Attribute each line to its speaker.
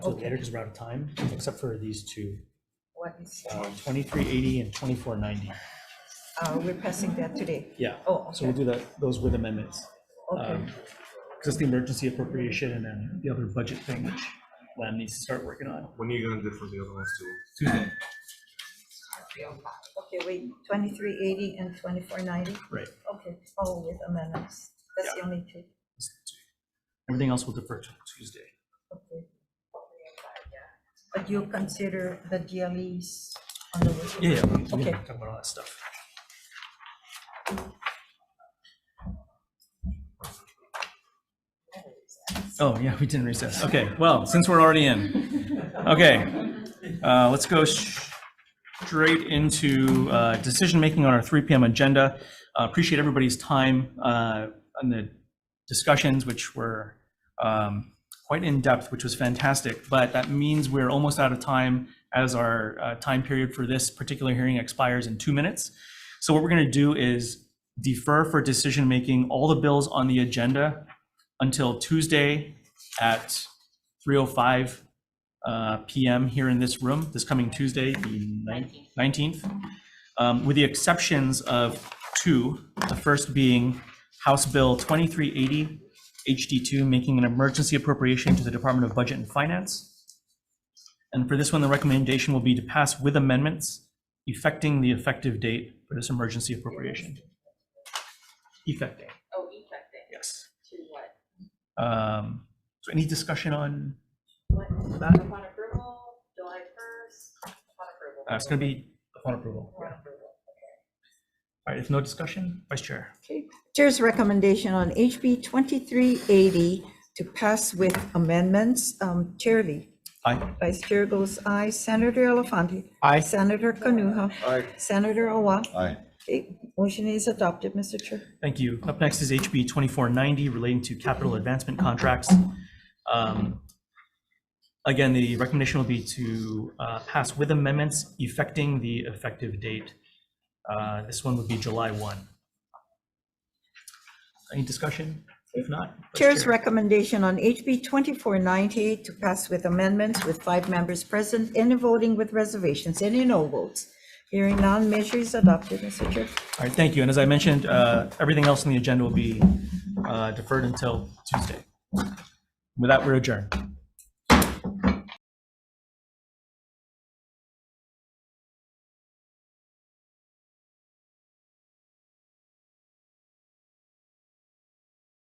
Speaker 1: till later because we're out of time, except for these two,
Speaker 2: What is,
Speaker 1: uh, 2380 and 2490.
Speaker 2: uh, we're passing that today.
Speaker 1: Yeah,
Speaker 2: Oh,
Speaker 1: so we'll
Speaker 2: okay,
Speaker 1: do um, that, those with amendments.
Speaker 2: okay,
Speaker 1: Because it's the emergency appropriation and then the other budget thing, which Lam needs to start working on.
Speaker 3: When are you gonna do for the other ones too?
Speaker 1: Tuesday,
Speaker 2: okay, wait, twenty-three eighty and twenty-four ninety?
Speaker 1: right.
Speaker 2: Okay, all with amendments, that's the only two,
Speaker 1: Everything else will defer to Tuesday.
Speaker 2: okay. But you'll consider the DLEs on the. working
Speaker 1: Yeah, yeah, we- we
Speaker 2: group?
Speaker 1: can
Speaker 2: Okay,
Speaker 1: talk about all that stuff. Oh, yeah, we didn't recess. Okay, well, since we're already in, okay, uh, let's go straight into uh, decision-making on our 3 PM agenda. Uh, Appreciate everybody's time uh, on the discussions, which were um, quite in-depth, which was fantastic. But that means we're almost out of time as our uh, time period for this particular hearing expires in two minutes. So what we're going to do is defer for decision-making all the bills on the agenda until Tuesday at 3:05 uh, PM here in this room, this coming Tuesday, the nine- 19th, um, with the exceptions of two, the first being House Bill 2380, HD2, making an emergency appropriation to the Department of Budget and Finance. And for this one, the recommendation will be to pass with amendments effecting the effective date for this emergency appropriation. Effecting,
Speaker 4: Oh, effective
Speaker 1: yes.
Speaker 4: to what?
Speaker 1: Um, So any discussion on,
Speaker 4: What,
Speaker 1: That-
Speaker 4: upon approval, July first, upon approval.
Speaker 1: uh, it's going to be upon approval.
Speaker 4: Upon approval.
Speaker 1: All right, if no discussion, Vice Chair.
Speaker 2: Chair's recommendation on HB 2380 to pass with amendments. Um, Chair Lee.
Speaker 1: Aye.
Speaker 2: Vice Chair goes aye. Senator Elafante.
Speaker 1: Aye.
Speaker 2: Senator Kanuha.
Speaker 3: Aye.
Speaker 2: Senator Owa.
Speaker 5: Aye.
Speaker 2: Okay, Motion is adopted, Mr. Chair.
Speaker 1: Thank you. Up next is HB 2490 relating to capital advancement contracts. Um, Again, the recommendation will be to uh, pass with amendments effecting the effective date. Uh, This one would be July 1. Any discussion? If not. Vice
Speaker 2: Chair's
Speaker 1: Chair.
Speaker 2: recommendation on HB 2490 to pass with amendments with five members present, any voting with reservations, any no votes. Hearing none, measure is adopted, Mr. Chair.
Speaker 1: All right, thank you. And as I mentioned, uh, everything else on the agenda will be uh, deferred until Tuesday. With that, we're adjourned.